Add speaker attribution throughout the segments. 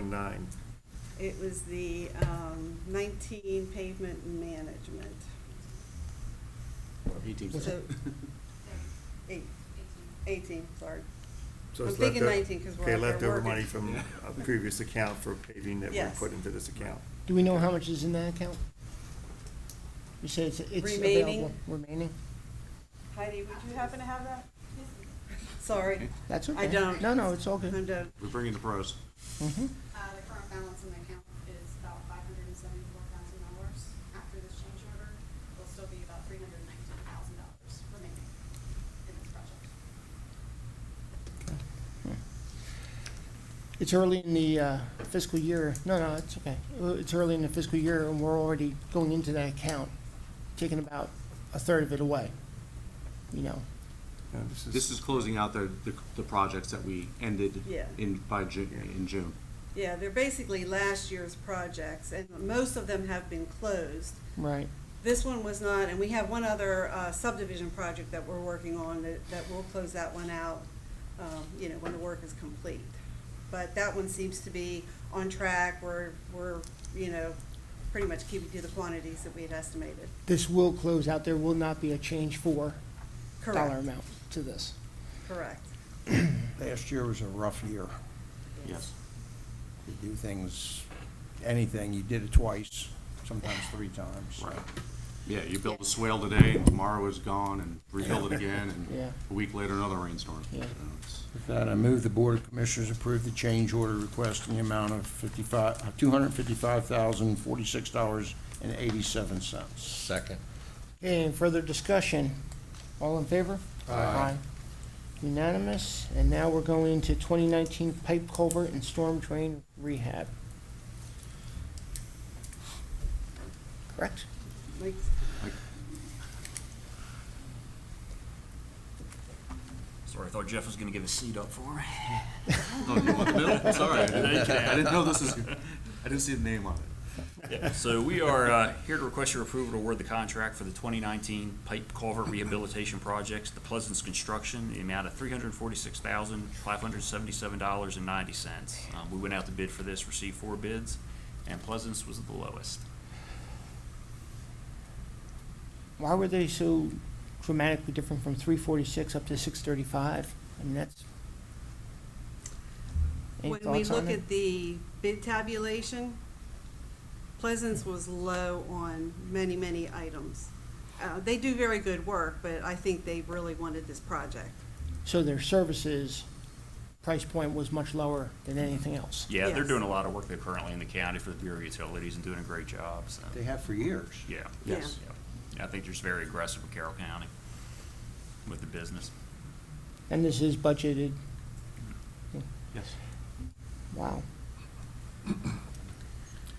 Speaker 1: nine?
Speaker 2: It was the um, 19 pavement management,
Speaker 3: Eighteen.
Speaker 2: Was it? eight, 18, sorry.
Speaker 1: So
Speaker 2: I'm
Speaker 1: it's
Speaker 2: thinking
Speaker 1: leftover-
Speaker 2: 19 'cause we're
Speaker 1: Okay,
Speaker 2: out there
Speaker 1: leftover
Speaker 2: working.
Speaker 1: money from a previous account for paving that we
Speaker 2: Yes.
Speaker 1: put into this account.
Speaker 4: Do we know how much is in that account? You said it's, it's available.
Speaker 2: Remaining.
Speaker 4: Remaining?
Speaker 2: Heidi, would you happen to have that? Sorry.
Speaker 4: That's okay.
Speaker 2: I don't.
Speaker 4: No, no, it's all good.
Speaker 2: I'm done.
Speaker 3: We're bringing the pros.
Speaker 4: Mhm.
Speaker 5: Uh, the current balance in the account is about five hundred and seventy-four thousand dollars. After this change order, will still be about three hundred and nineteen thousand dollars remaining in this project.
Speaker 4: It's early in the uh, fiscal year. No, no, it's okay. Uh, It's early in the fiscal year and we're already going into that account, taking about a third of it away. You know,
Speaker 1: Now, this
Speaker 3: This is closing out the, the, the projects that we ended
Speaker 2: Yeah.
Speaker 3: in, by Ju- in June.
Speaker 2: Yeah, they're basically last year's projects, and most of them have been closed.
Speaker 4: right.
Speaker 2: This one was not, and we have one other uh, subdivision project that we're working on that, that will close that one out, um, you know, when the work is complete. But that one seems to be on track, we're, we're, you know, pretty much keeping to the quantities that we had estimated.
Speaker 4: This will close out. There will not be a change for dollar
Speaker 2: Correct,
Speaker 4: amount to this.
Speaker 2: correct.
Speaker 6: Last year was a rough year.
Speaker 3: Yes.
Speaker 6: You do things, anything, you did it twice, sometimes three times.
Speaker 3: Right. Yeah, you build a swale today and tomorrow is gone and rebuild it again
Speaker 4: Yeah.
Speaker 3: and a week later another rainstorm.
Speaker 4: Yeah.
Speaker 3: You know, it's-
Speaker 6: With that, I move the Board of Commissioners approve the change order request in the amount of fifty-five, two hundred fifty-five thousand, forty-six dollars and eighty-seven cents.
Speaker 7: Second.
Speaker 4: Okay, any further discussion? All in favor? Aye. Unanimous, and now we're going to 2019 pipe culvert and storm drain rehab. Correct?
Speaker 2: Like,
Speaker 8: Sorry, I thought Jeff was gonna give a seat up for me.
Speaker 3: Oh, you want the bill? Sorry, I didn't I didn't know this is, I didn't see the name on it.
Speaker 8: So we are uh, here to request your approval to award the contract for the 2019 pipe culvert rehabilitation projects, the Pleasance Construction, in the amount of $346,577.90. Um, We went out to bid for this, received four bids, and Pleasance was the lowest.
Speaker 4: Why were they so dramatically different from 346 up to 635? I mean, that's. Any
Speaker 2: When we
Speaker 4: thoughts on
Speaker 2: look
Speaker 4: it?
Speaker 2: at the bid tabulation, Pleasance was low on many, many items. Uh, They do very good work, but I think they really wanted this project.
Speaker 4: So their services price point was much lower than anything else.
Speaker 8: Yeah, they're
Speaker 2: Yes.
Speaker 8: doing a lot of work there currently in the county for the Bureau of Utilities and doing a great job, so,
Speaker 6: They have for years.
Speaker 8: yeah.
Speaker 2: Yeah.
Speaker 8: Yes. Yeah. I think they're just very aggressive with Carroll County with the business.
Speaker 4: And this is budgeted,
Speaker 3: Yes.
Speaker 4: wow.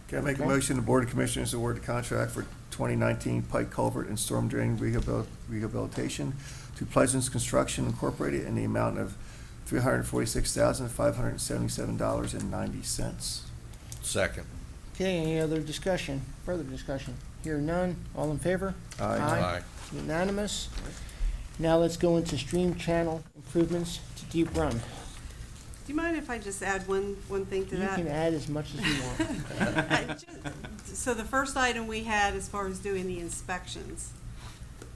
Speaker 1: Can I make a
Speaker 4: Okay.
Speaker 1: motion, the Board of Commissioners award the contract for 2019 Pike Culvert and Storm Drain rehabil- Rehabilitation to Pleasance Construction Incorporated in the amount of $346,577.90.
Speaker 7: Second.
Speaker 4: Okay, any other discussion, further discussion? Here none, all in favor?
Speaker 1: Aye.
Speaker 7: Aye.
Speaker 4: Unanimous. Now let's go into stream channel improvements to Deep Run.
Speaker 2: Do you mind if I just add one, one thing to
Speaker 4: You
Speaker 2: that?
Speaker 4: can add as much as you want.
Speaker 2: Uh, ju- So the first item we had as far as doing the inspections,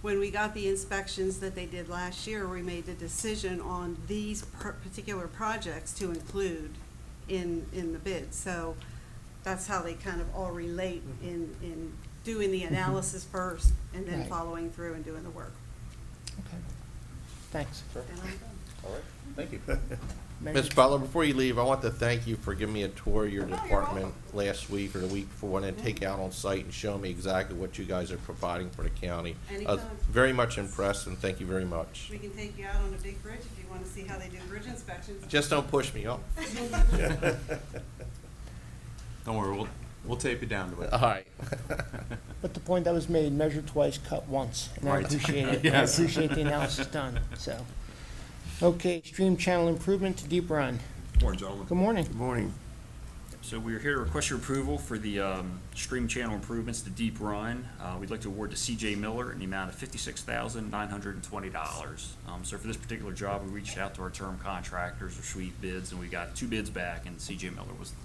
Speaker 2: when we got the inspections that they did last year, we made the decision on these per- particular projects to include in, in the bid. So that's how they kind of all relate in, in doing the analysis first and then
Speaker 4: Mm-hmm. Right.
Speaker 2: following through and doing the work.
Speaker 4: Okay. Thanks.
Speaker 2: And I'm done.
Speaker 7: All right.
Speaker 3: Thank you.
Speaker 4: Megan?
Speaker 7: Ms. Butler, before you leave, I want to thank you for giving me a tour of your
Speaker 2: Oh, you're
Speaker 7: department
Speaker 2: welcome. Mm-hmm.
Speaker 7: last week or the week before, and then take out on site and show me exactly what you guys are providing for the county. I was
Speaker 2: Anytime.
Speaker 7: Very much impressed, and thank you very much.
Speaker 2: We can take you out on a big bridge if you want to see how they do bridge inspections.
Speaker 7: Just don't push me, oh.
Speaker 3: Don't worry, we'll, we'll tape you down to it.
Speaker 7: All right.
Speaker 4: Uh-huh. But the point that was made, measure twice, cut once, and I
Speaker 3: Right.
Speaker 4: appreciate it. I
Speaker 3: Yes.
Speaker 4: appreciate the analysis done, so. Okay, stream channel improvement to Deep Run.
Speaker 3: Morning, gentlemen.
Speaker 4: Good morning.
Speaker 1: Good morning.
Speaker 8: So we are here to request your approval for the um, stream channel improvements to Deep Run. Uh, We'd like to award to CJ Miller in the amount of fifty-six thousand nine hundred and twenty dollars. Um, So for this particular job, we reached out to our term contractors or sweep bids, and we got two bids back, and CJ Miller was the